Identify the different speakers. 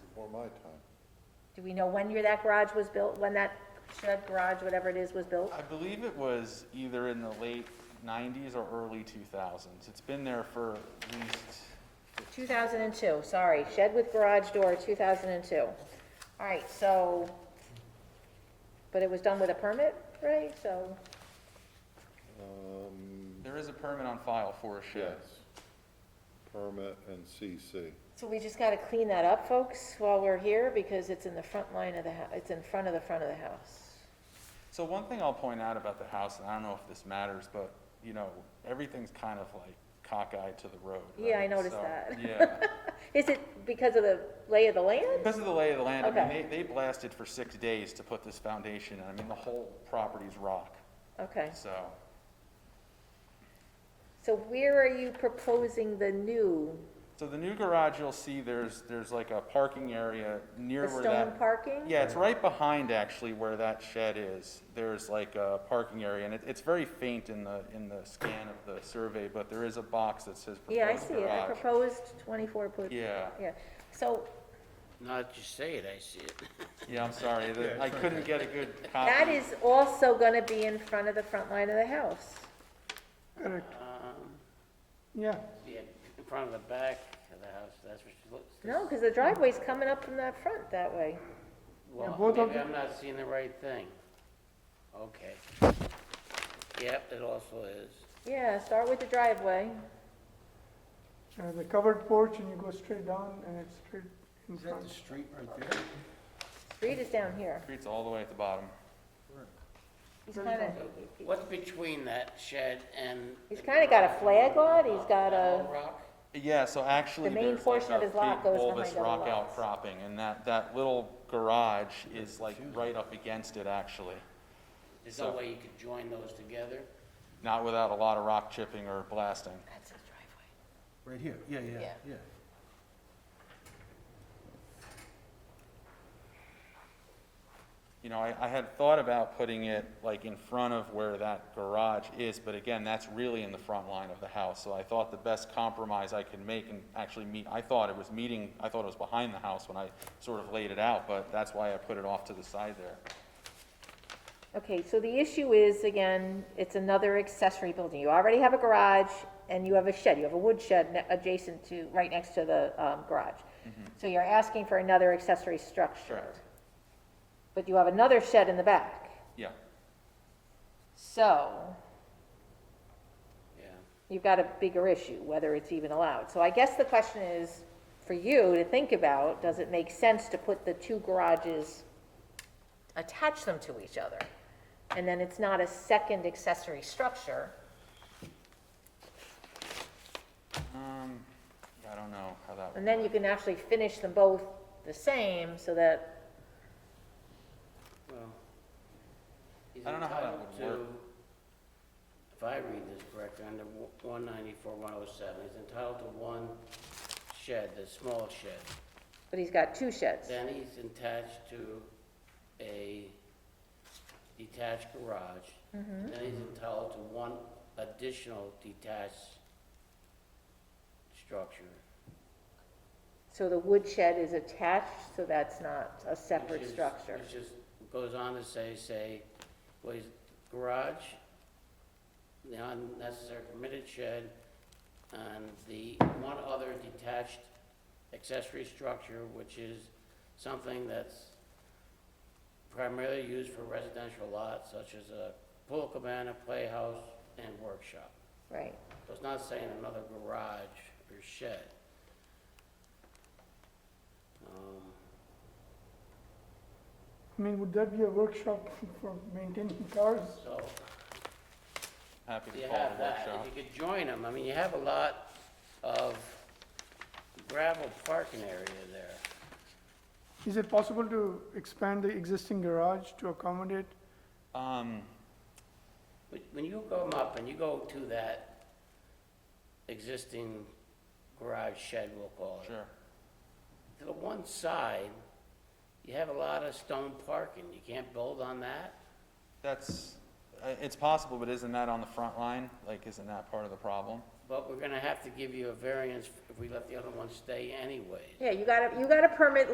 Speaker 1: before my time.
Speaker 2: Do we know when your, that garage was built, when that shed, garage, whatever it is, was built?
Speaker 3: I believe it was either in the late 90s or early 2000s. It's been there for at least,
Speaker 2: 2002, sorry, shed with garage door, 2002. All right, so, but it was done with a permit, right? So,
Speaker 1: Um,
Speaker 3: there is a permit on file for a
Speaker 1: yes.
Speaker 3: shed.
Speaker 1: Permit and CC.
Speaker 2: so we just got to clean that up, folks, while we're here, because it's in the front line of the, hou- it's in front of the front of the house.
Speaker 3: So one thing I'll point out about the house, and I don't know if this matters, but, you know, everything's kind of like cockeyed to the road.
Speaker 2: Yeah, I
Speaker 3: right?
Speaker 2: noticed
Speaker 3: So,
Speaker 2: that.
Speaker 3: Yeah.
Speaker 2: Is it because of the lay of the land?
Speaker 3: Because of the lay of the land, I
Speaker 2: Okay.
Speaker 3: mean, they, they blasted for six days to put this foundation, and I mean, the whole property's rock,
Speaker 2: Okay,
Speaker 3: so.
Speaker 2: so where are you proposing the new,
Speaker 3: So the new garage, you'll see there's, there's like a parking area near
Speaker 2: the
Speaker 3: where
Speaker 2: stone
Speaker 3: that.
Speaker 2: parking?
Speaker 3: Yeah, it's right behind actually where that shed is. There's like a parking area, and it, it's very faint in the, in the scan of the survey, but there is a box that says
Speaker 2: Yeah, I
Speaker 3: proposed
Speaker 2: see it, I
Speaker 3: garage.
Speaker 2: proposed 24-foot.
Speaker 3: Yeah,
Speaker 2: Yeah, so
Speaker 4: Now that you say it, I see it.
Speaker 3: yeah, I'm sorry, the- I couldn't get a good copy.
Speaker 2: that is also going to be in front of the front line of the house.
Speaker 5: Correct,
Speaker 4: Um,
Speaker 5: yeah.
Speaker 4: Yeah, in front of the back of the house, that's what she looks.
Speaker 2: No, because the driveway's coming up from that front that way.
Speaker 5: Yeah,
Speaker 4: Well,
Speaker 5: both of
Speaker 4: maybe
Speaker 5: them.
Speaker 4: I'm not seeing the right thing. Okay. Yep, it also is.
Speaker 2: Yeah, start with the driveway.
Speaker 5: Uh, The covered porch and you go straight down and it's straight in
Speaker 6: Is that
Speaker 5: front.
Speaker 6: the street right there?
Speaker 2: Street is down here.
Speaker 3: Street's all the way at the bottom.
Speaker 2: He's kind of,
Speaker 4: What's between that shed and?
Speaker 2: he's kind of got a flag lot, he's got
Speaker 4: That
Speaker 2: a,
Speaker 4: whole rock?
Speaker 3: Yeah, so actually,
Speaker 2: The main
Speaker 3: there's like
Speaker 2: portion of
Speaker 3: a
Speaker 2: his lot
Speaker 3: big
Speaker 2: goes
Speaker 3: bulbous
Speaker 2: behind other
Speaker 3: rock
Speaker 2: lots.
Speaker 3: outcropping, and that, that little garage is like right up against it, actually.
Speaker 4: There's no
Speaker 3: So-
Speaker 4: way you could join those together?
Speaker 3: Not without a lot of rock chipping or blasting.
Speaker 2: that's his driveway.
Speaker 6: Right here, yeah, yeah,
Speaker 2: Yeah.
Speaker 6: yeah.
Speaker 3: You know, I, I had thought about putting it like in front of where that garage is, but again, that's really in the front line of the house. So I thought the best compromise I could make and actually meet, I thought it was meeting, I thought it was behind the house when I sort of laid it out, but that's why I put it off to the side there.
Speaker 2: Okay, so the issue is, again, it's another accessory building. You already have a garage and you have a shed, you have a wood shed ne- adjacent to, right next to the um, garage. So you're asking for another accessory structure.
Speaker 3: Mm-hmm. Correct.
Speaker 2: But you have another shed in the back.
Speaker 3: Yeah,
Speaker 2: So
Speaker 4: Yeah.
Speaker 2: you've got a bigger issue, whether it's even allowed. So I guess the question is, for you to think about, does it make sense to put the two garages, attach them to each other? And then it's not a second accessory structure.
Speaker 3: um, I don't know how that would.
Speaker 2: And then you can actually finish them both the same so that,
Speaker 4: Well, he's
Speaker 3: I don't know how that
Speaker 4: entitled
Speaker 3: would work.
Speaker 4: to- If I read this correctly, under one ninety-four, one oh seven, he's entitled to one shed, the small shed.
Speaker 2: but he's got two sheds.
Speaker 4: Then he's attached to a detached garage. Then he's entitled to one additional detached structure.
Speaker 2: So the wood shed is attached, so that's not a
Speaker 4: which
Speaker 2: separate
Speaker 4: is-
Speaker 2: structure.
Speaker 4: Which just goes on to say, say, well, his garage, the unnecessary permitted shed, and the one other detached accessory structure, which is something that's primarily used for residential lots, such as a pool cabana, playhouse, and workshop.
Speaker 2: Right.
Speaker 4: So it's not saying another garage or shed. Um,
Speaker 5: I mean, would that be a workshop for maintaining cars?
Speaker 4: So,
Speaker 3: Happy
Speaker 4: You
Speaker 3: to call
Speaker 4: have
Speaker 3: it a
Speaker 4: that,
Speaker 3: workshop.
Speaker 4: if you could join them, I mean, you have a lot of gravel parking area there.
Speaker 5: Is it possible to expand the existing garage to accommodate?
Speaker 3: Um,
Speaker 4: But When you go up and you go to that existing garage shed, we'll call it,
Speaker 3: sure.
Speaker 4: to the one side, you have a lot of stone parking, you can't build on that?
Speaker 3: That's, uh, it's possible, but isn't that on the front line? Like, isn't that part of the problem?
Speaker 4: But we're gonna have to give you a variance if we let the other one stay anyways.
Speaker 2: Yeah, you got a, you got a permit